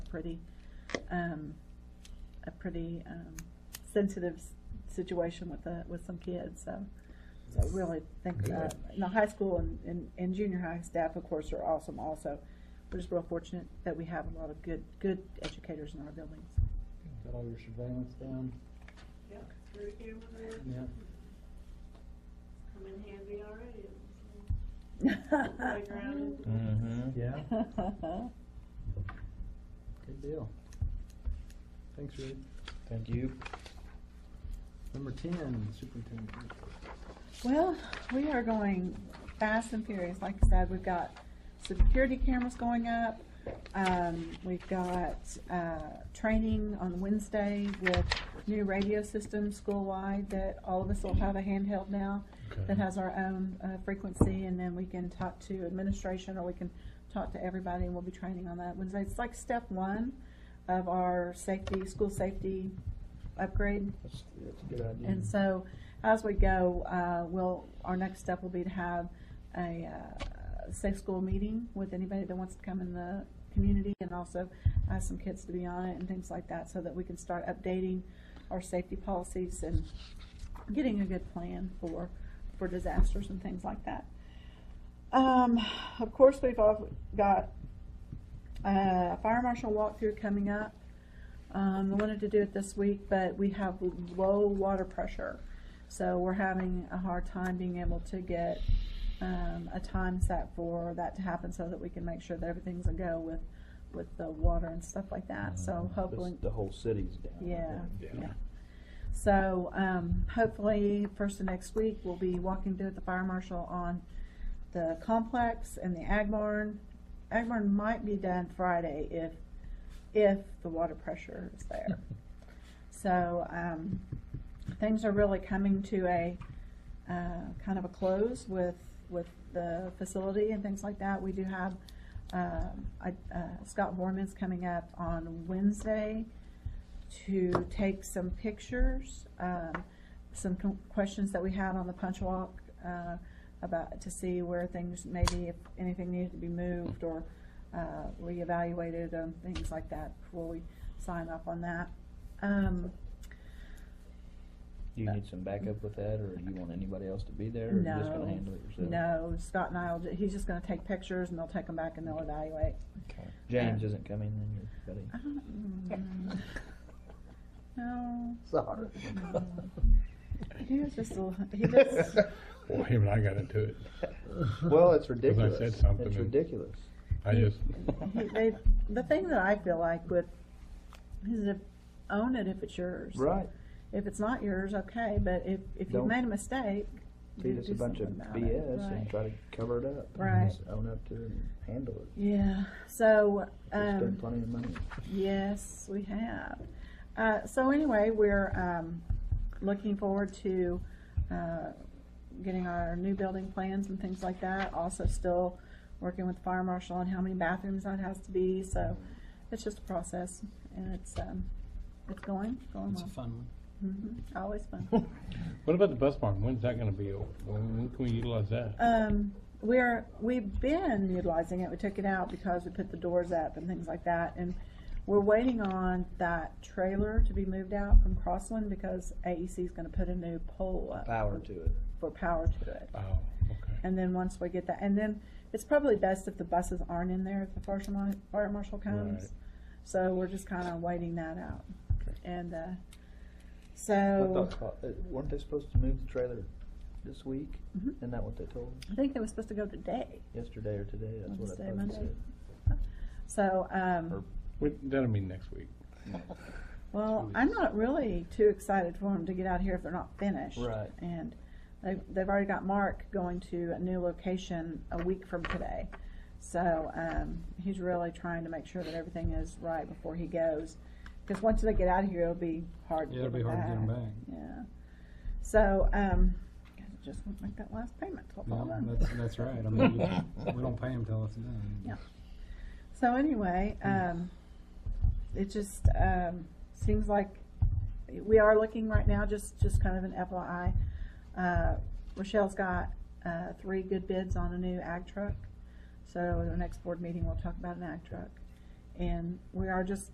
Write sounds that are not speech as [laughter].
pretty, um, a pretty, um, sensitive s- situation with the, with some kids, so. So I really think, uh, and the high school and, and, and junior high staff, of course, are awesome also. We're just real fortunate that we have a lot of good, good educators in our buildings. Got all your surveillance down? Yeah, through camera there. Yeah. Come in handy already. [laughs] Playground Good Mm-hmm. and- Yeah, [laughs] good deal. Thanks, Rick. Thank you. Number ten, superintendent. Well, we are going fast and furious. Like I said, we've got security cameras going up. Um, we've got, uh, training on Wednesday with new radio systems school-wide that all of us will have a handheld now Okay. that has our own, uh, frequency and then we can talk to administration or we can talk to everybody and we'll be training on that Wednesday. It's like step one of our safety, school safety upgrade. That's, that's a good idea. And so, as we go, uh, we'll, our next step will be to have a, uh, safe school meeting with anybody that wants to come in the community and also ask some kids to be on it and things like that, so that we can start updating our safety policies and getting a good plan for, for disasters and things like that. Um, of course, we've all got, uh, fire marshal walkthrough coming up. Um, I wanted to do it this week, but we have low water pressure. So we're having a hard time being able to get, um, a time set for that to happen so that we can make sure that everything's a go with, with the water and stuff like that. So hopefully. Uh, The whole city's down. I Yeah, think. yeah. So, um, hopefully, first of next week, we'll be walking through with the fire marshal on the complex and the ag barn. Ag barn might be done Friday if, if the water pressure is there. So, um, things are really coming to a, uh, kind of a close with, with the facility and things like that. We do have, um, I- uh, Scott Borman's coming up on Wednesday to take some pictures, um, some co- questions that we had on the punch walk, uh, about, to see where things, maybe if anything needed to be moved or, uh, reevaluated and things like that before we sign up on that. Um, Do you need some backup with that, or you want anybody else to be there, or you just No. gonna handle it yourself? no, Scott and I will, ju- he's just gonna take pictures and they'll take them back and they'll evaluate. Okay. James isn't coming, then your buddy? I don't- mm, No, Sorry. [laughs] he was just a, little- [laughs] he just, Well, him and I got into it. Well, it's said ridiculous. something It's and- ridiculous. I just, [laughs] He- They, the thing that I feel like with, is if, own it if it's yours. Right. If it's not yours, okay, but if, if you've Don't made a mistake, do Feed us a do bunch something of about it. BS and Right. try to cover it up. and Right. just Own up to it and handle it. Yeah, so, We um, spend plenty of money. yes, we have. Uh, so anyway, we're, um, looking forward to, uh, getting our new building plans and things like that. Also still working with the fire marshal on how many bathrooms that has to be, so it's just a process and it's, um, it's going, going It's a well. fun one. Mm-hmm, always fun. [laughs] what about the bus barn? When's that gonna be open? When, when can we utilize that? Um, we're, we've been utilizing it, we took it out because we put the doors up and things like that, and we're waiting on that trailer to be moved out from Crossland because AEC is gonna put a new pole up. Power to it. For power to it, Oh, okay. and then once we get that, and then it's probably best if the buses aren't in there if the fire marshal, fire marshal comes. Right. So we're just kinda waiting that out, and, uh, I so, thought, uh, weren't they supposed to move the trailer this week? Mhm. Isn't that what they told us? I think they were supposed to go today, Yesterday or today? That's what I Wednesday, thought they Monday. said. So, um, Or- We- That'll be next week. well, I'm not really too excited for them to get out here if they're not finished. Right. And they've, they've already got Mark going to a new location a week from today. So, um, he's really trying to make sure that everything is right before he goes. Cause once they get out of here, it'll be hard to Yeah, get it'll them be hard to get 'em back. Yeah. So, um, guys, I just want to make that last payment till fall Yeah, done. that's, that's right. I mean, we- we don't pay them till it's done. Yeah. So anyway, um, it just, um, seems like we are looking right now, just, just kind of an FYI. Uh, Rochelle's got, uh, three good bids on a new ag truck. So the next board meeting, we'll talk about an ag truck. And we are just